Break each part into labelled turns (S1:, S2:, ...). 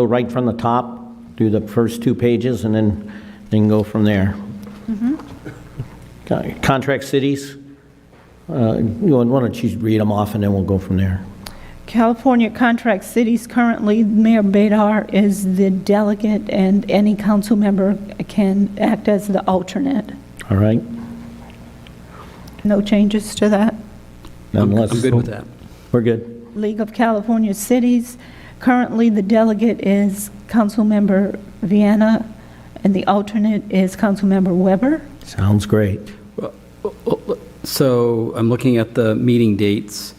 S1: Go right from the top, do the first two pages, and then, then go from there.
S2: Mm-hmm.
S1: Con- Contract cities, uh, you want- why don't you read them off, and then we'll go from there.
S3: California contract cities currently, Mayor Bedar is the delegate, and any council member can act as the alternate.
S1: All right?
S3: No changes to that.
S2: I'm
S1: Unless-
S2: I'm good with that.
S1: We're good.
S3: League of California Cities, currently the delegate is Councilmember Vienna, and the alternate is Councilmember Weber.
S1: Sounds great.
S2: So I'm looking at the meeting dates.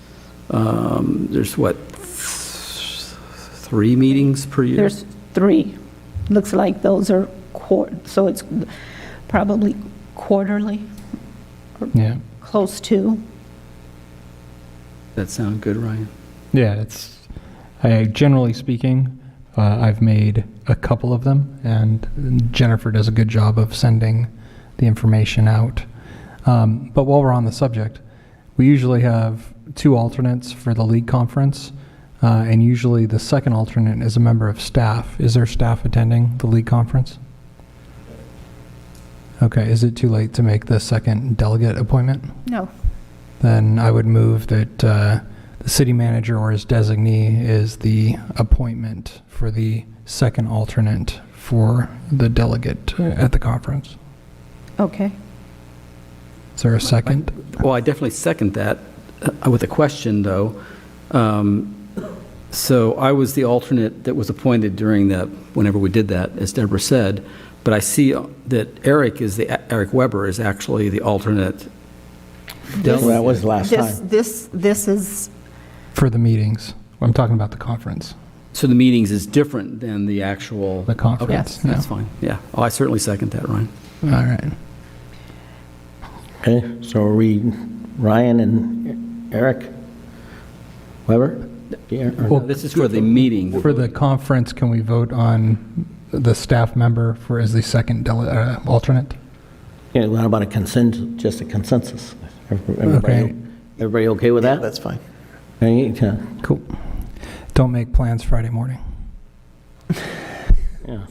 S2: Um, There's what, th- three meetings per year?
S3: There's three. Looks like those are quar, so it's probably quarterly,
S4: Yeah,
S3: close to.
S2: That sound good, Ryan?
S4: yeah. It's I generally speaking, uh, I've made a couple of them, and Jennifer does a good job of sending the information out. Um, but while we're on the subject, we usually have two alternates for the league conference, uh, and usually the second alternate is a member of staff. Is there staff attending the league conference? Okay. Is it too late to make the second delegate appointment?
S3: No.
S4: Then I would move that uh, the city manager or his designee is the appointment for the second alternate for the delegate at the conference.
S3: Okay.
S4: Is there a second?
S2: Well, I definitely second that uh, with a question, though. Um, So I was the alternate that was appointed during the, whenever we did that, as Deborah said, but I see uh, that Eric is the, Eric Weber is actually the alternate.
S1: Well, That was last
S3: This,
S1: time.
S3: this, this is,
S4: For the meetings. I'm talking about the conference.
S2: So the meetings is different than the actual.
S4: The conference,
S2: Okay,
S4: yeah.
S2: That's fine, yeah. Oh, I certainly second that, Ryan.
S4: All right.
S1: Okay, so are we, Ryan and Eric? Weber? Yeah, or-
S2: No, This is for the meeting.
S4: For the conference, can we vote on the staff member for as the second dele- uh, alternate?
S1: Yeah, what about a consent, just a consensus? Everybody
S4: Okay.
S1: everybody okay with that?
S5: That's fine.
S1: Hey, uh,
S4: Cool. Don't make plans Friday morning.
S1: yeah.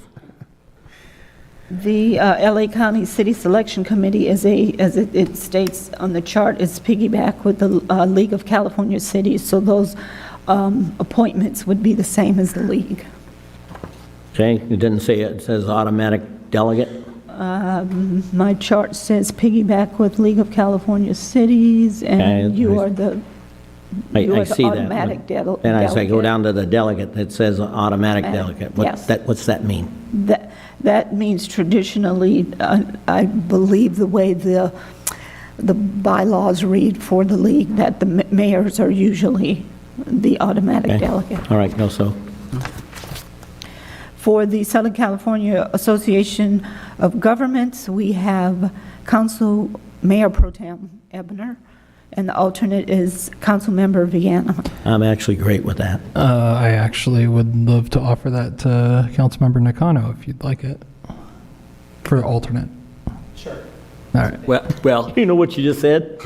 S3: the uh, LA County City Selection Committee is a, as it- it states on the chart, is piggyback with the uh, League of California Cities, so those um, appointments would be the same as the league.
S1: Okay, it didn't say, it It says automatic delegate?
S3: My chart says piggyback with League of California Cities, and
S1: Okay, I-
S3: you are the,
S1: I-
S3: you
S1: I
S3: are the
S1: see that.
S3: automatic del- delegate.
S1: And as I go down to the delegate, it says automatic
S3: Automatic,
S1: delegate. What
S3: yes.
S1: that What's that mean?
S3: That, that means traditionally, uh, I believe the way the, the bylaws read for the league, that the ma- mayors are usually the automatic
S1: Okay.
S3: delegate.
S1: All right, no, so,
S3: For the Southern California Association of Governments, we have Council Mayor Pro Tem Ebner, and the alternate is Councilmember Vianna.
S1: I'm actually great with that.
S4: Uh, I actually would love to offer that to Councilmember Nakano if you'd like it for alternate. Sure. All right.
S2: Well, well,
S1: You know what you just said?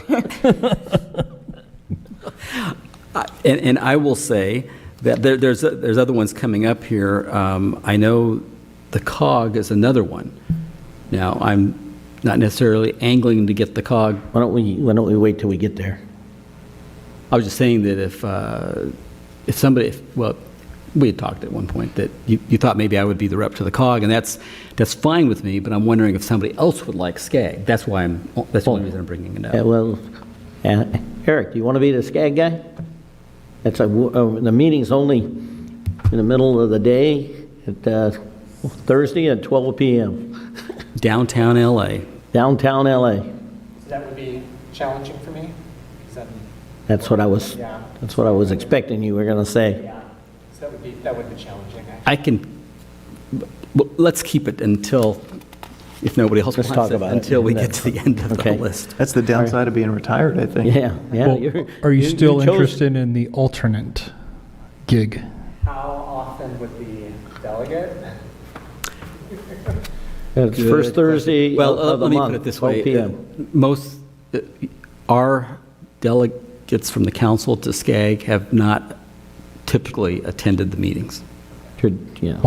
S2: I- and, and I will say that there, there's, there's other ones coming up here. Um, I know the COG is another one. Now, I'm not necessarily angling to get the COG.
S1: Why don't we, why don't we wait till we get there?
S2: I was just saying that if, uh, if somebody, if- well, we had talked at one point that you, you thought maybe I would be the rep to the COG, and that's, that's fine with me, but I'm wondering if somebody else would like SCAG. That's why I'm, that's the only reason I'm bringing it
S1: Yeah,
S2: up.
S1: well, uh, Eric, do you want to be the SCAG guy? That's a, uh, the meeting's only in the middle of the day, at uh, Thursday at 12 PM,
S2: Downtown LA.
S1: downtown LA.
S6: That would be challenging for me. Is that,
S1: That's what I was,
S6: Yeah.
S1: that's what I was expecting you were going to say.
S6: yeah, so that would be, that would be challenging. I-
S2: I can, well, let's keep it until, if nobody else
S1: Let's
S2: wants
S1: talk
S2: it,
S1: about it.
S2: until we get to the end of the
S1: Okay.
S2: list.
S5: That's the downside of being retired, I think.
S1: Yeah, yeah.
S4: Well,
S1: you're-
S4: are you still
S1: chose-
S4: interested in the alternate gig?
S6: How often would the delegate?
S1: It's first Thursday
S2: Well, uh,
S1: of the
S2: let me
S1: month.
S2: put it this
S1: 12
S2: way.
S1: PM.
S2: Uh, Most, uh, our delegates from the council to SCAG have not typically attended the meetings.
S1: could, you know.